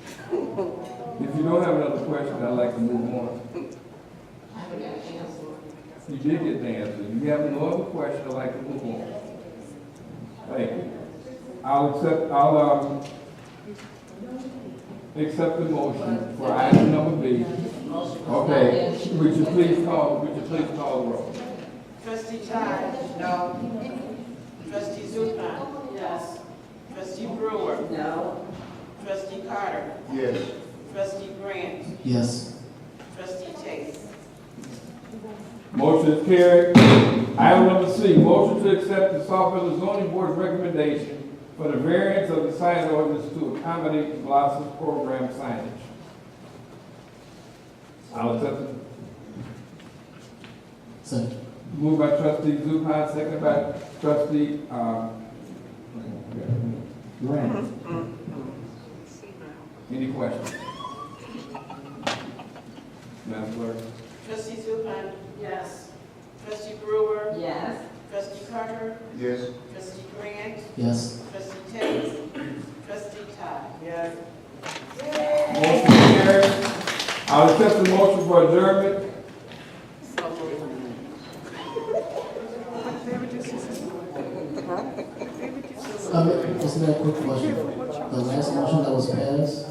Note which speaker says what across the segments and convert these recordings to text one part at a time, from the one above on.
Speaker 1: If you don't have another question, I'd like to move on.
Speaker 2: I haven't got an answer.
Speaker 1: You did get the answer. You have no other question, I'd like to move on. Thank you. I'll accept, I'll, um, accept the motion for item number B. Okay, would you please call, would you please call the roll?
Speaker 3: Trustee Todd? No. Trustee Zupan? Yes. Trustee Brewer?
Speaker 2: No.
Speaker 3: Trustee Carter?
Speaker 4: Yes.
Speaker 3: Trustee Grant?
Speaker 4: Yes.
Speaker 3: Trustee Tate?
Speaker 1: Motion is carried. Item number C, motion to accept the Southfield zoning board's recommendation for the variance of the sign ordinance to accommodate the Blossom Program signage. I'll accept the
Speaker 4: Second.
Speaker 1: Moved by trustee Zupan, second by trustee, um,
Speaker 4: Grant.
Speaker 1: any questions? Madam Clerk?
Speaker 3: Trustee Zupan?
Speaker 2: Yes.
Speaker 3: Trustee Brewer?
Speaker 2: Yes.
Speaker 3: Trustee Carter?
Speaker 4: Yes.
Speaker 3: Trustee Grant?
Speaker 4: Yes.
Speaker 3: Trustee Tate? Trustee Todd? Yes.
Speaker 1: Motion carried. I'll accept the motion for adjournment.
Speaker 4: Uh, just a quick question. The last motion that was passed,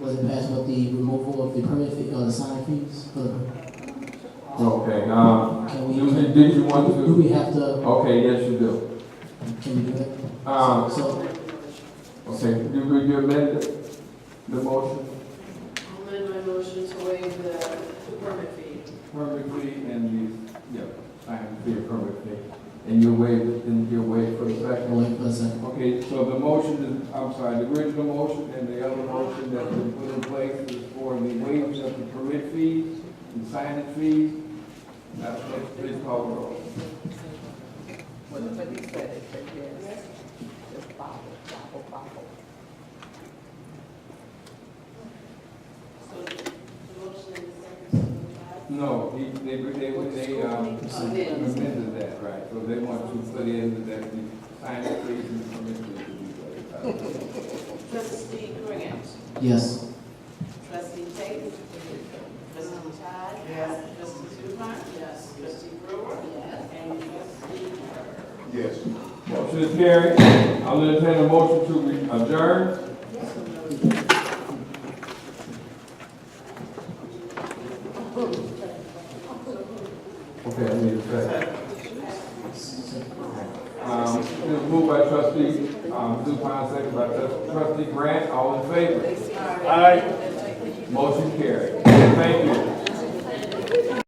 Speaker 4: was it passed with the removal of the permit fee, or the sign fees? for the-
Speaker 1: Okay, um,
Speaker 4: Can we,
Speaker 1: you, did you want
Speaker 4: do
Speaker 1: to?
Speaker 4: we have to,
Speaker 1: Okay, yes, you do.
Speaker 4: can we do that?
Speaker 1: Um,
Speaker 4: So,
Speaker 1: okay, you, you amend the, the motion?
Speaker 2: I'll amend my motion to waive the permit fee.
Speaker 1: Perfectly, and you, yeah, I have to be perfectly. And you waive, and you waive for the second.
Speaker 4: I'll wait for a second.
Speaker 1: Okay, so the motion is, I'm sorry, the original motion and the other motion that's been put in place is for the waivers of the permit fees and signing fees. That's what please call the roll.
Speaker 3: So the motion and the second.
Speaker 1: No, he- they, they, they, um, amended that, right, so they want to put in that the signing fees and permit fees will be waived.
Speaker 3: Trustee Grant?
Speaker 4: Yes.
Speaker 3: Trustee Tate? Trustee Todd? Yes. Trustee Zupan? Yes. Trustee Brewer? Yes. And trustee Carter?
Speaker 5: Yes.
Speaker 1: Motion is carried. I'll entertain a motion to re- adjourn. Okay, I need a second. Um, it was moved by trustee, um, Zupan, second by trustee Grant, all in favor? Aye. Motion carried.